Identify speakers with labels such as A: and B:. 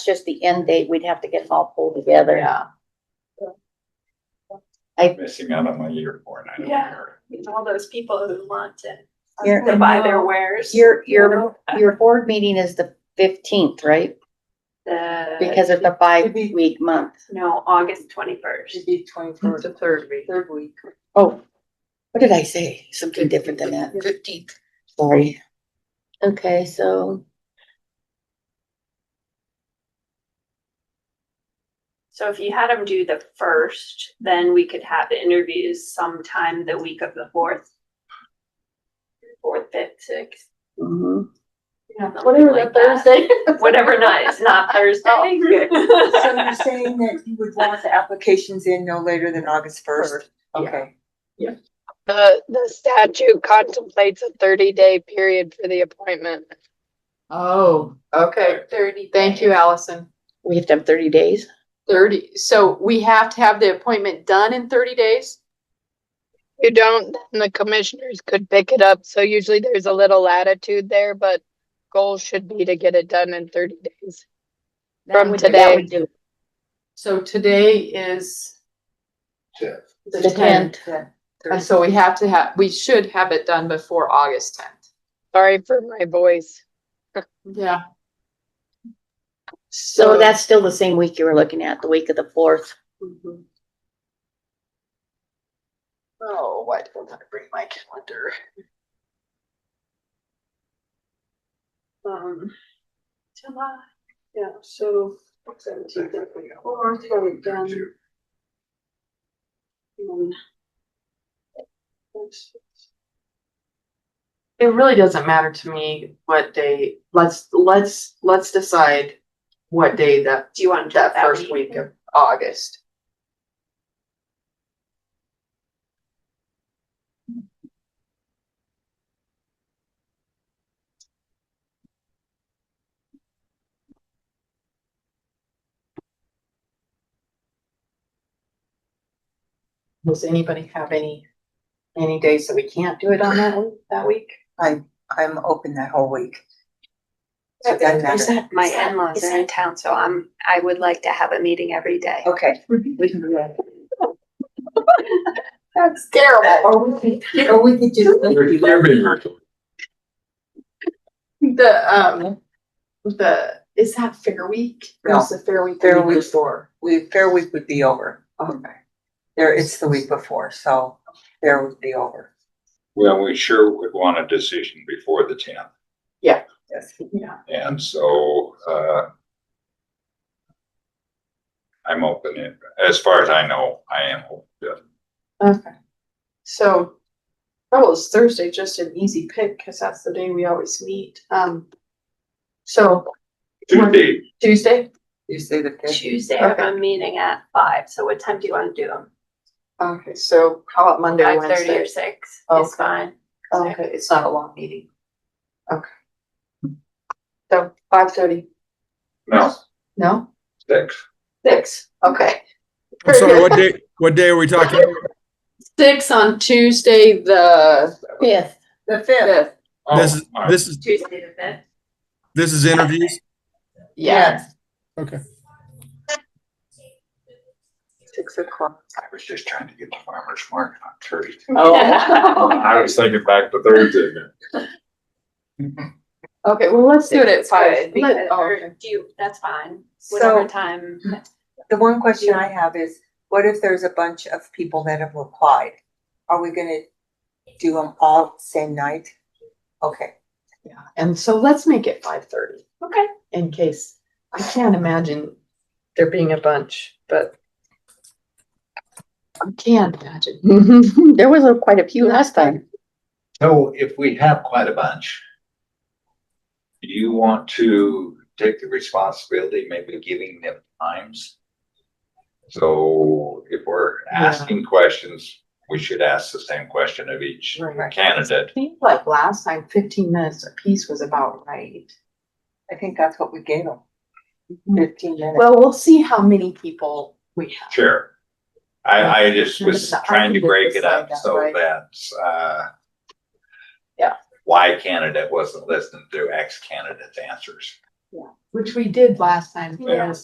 A: just the end date, we'd have to get them all pulled together.
B: Yeah.
C: missing out on my year for it. I don't
D: Yeah.
C: care.
D: It's all those people who want to
A: You're-
D: to buy their wares.
A: Your, your, your board meeting is the fifteenth, right?
D: The-
E: Uh,
A: Because of the five-week month.
D: No, August twenty-first.
B: Should be twenty-fourth,
E: the third week.
B: third week.
A: Oh, what did I say? Something different than that.
E: Fifteenth.
A: Sorry. Okay, so
D: So if you had them do the first, then we could have the interviews sometime the week of the fourth. Fourth, fifth, sixth,
A: mhm.
D: Whatever that Thursday. whatever night, it's not Thursday.
B: So you're saying that you would want the applications in no later than August first? Okay.
F: The, the statute contemplates a thirty-day period for the appointment.
E: Oh, okay.
D: Thirty.
E: Thank you, Allison.
A: we have to have thirty days.
E: Thirty, so we have to have the appointment done in thirty days?
F: If You don't, then the commissioners could pick it up, so usually there's a little latitude there, but goal should be to get it done in thirty days.
A: That
F: From
A: would-
F: today.
A: That would do.
E: So today is,
A: The tenth.
E: uh, so we have to have, we should have it done before August tenth.
F: Sorry for my voice.
E: Yeah.
A: So that's still the same week you were looking at, the week of the fourth.
E: Mhm. Oh, why didn't I bring my calendar? Um,
D: July.
E: yeah, so.
C: Same
E: seventeenth,
C: thing,
E: okay.
C: yeah.
E: Or it's already done.
C: Two.
E: Um, It really doesn't matter to me what day, let's, let's, let's decide what day that
D: Do you want to? do
E: that first week of August. Does anybody have any, any days that we can't do it on that, one- that week?
B: I'm open that whole week. So it doesn't
E: Is
B: matter.
E: that-
D: My
E: is that-
D: in-laws
E: is
D: are in town, so I'm, I would like to have a meeting every day.
B: Okay.
E: We can do that.
B: That's terrible. Or we could, or we could just.
C: You're you're being recorded.
E: The, um, the, is that Fair Week? Or is the Fair Week? the
B: Fair Week.
E: Before.
B: We, Fair Week would be over. Okay. There, it's the week before, so Fair would be over.
C: Well, we sure would want a decision before the tenth.
B: Yes.
E: Yeah.
C: And so, uh, I'm open it. As far as I know, I am open. to it.
E: Okay. So, oh, it's Thursday, just an easy pick, cause that's the day we always meet. Um, so
C: Tuesday,
E: Tuesday?
B: You say the fifth.
D: Tuesday, I have
E: Okay.
D: a meeting at five, so what time do you want to do them?
E: Okay, so how about Monday,
D: Five thirty
E: Wednesday?
D: or six
E: Okay.
D: is fine.
E: Okay, it's not a long meeting. Okay. So five thirty,
C: no,
E: no?
C: six.
E: Six, okay.
G: I'm sorry, what day, what day are we talking? about?
E: Six on Tuesday, the
A: Fifth.
B: The fifth.
E: fifth.
C: Oh,
G: This is,
C: all right.
G: this is,
D: Tuesday the fifth.
G: this is interviews?
E: Yeah.
G: Okay.
E: Six o'clock.
C: I was just trying to get the farmer's market on Thursday.
E: Oh.
C: I was thinking back to Thursday.
E: Okay, well, let's do it at five.
D: Because-
E: Let- oh,
D: or
E: okay.
D: do you, that's fine,
B: So-
D: whatever time.
B: The one question I have is, what if there's a bunch of people that have applied? Are we gonna do them all same night? Okay,
E: Yeah, and so let's make it five thirty
D: Okay.
E: in case, I can't imagine there being a bunch, but. I can't imagine.
A: There was a- quite a few last time.
C: So if we have quite a bunch, do you want to take the responsibility, maybe giving them times? So if we're
E: Yeah.
C: asking questions, we should ask the same question of each
E: Right.
C: candidate.
E: I think like last time, fifteen minutes apiece was about right.
B: I think that's what we gave them, fifteen minutes.
E: Well, we'll see how many people we have.
C: Sure. I, I just was trying to break it up so
E: Right.
C: that, uh,
E: Yeah.
C: why candidate wasn't listening to X candidate's answers.
H: which we did last time.
E: Yeah.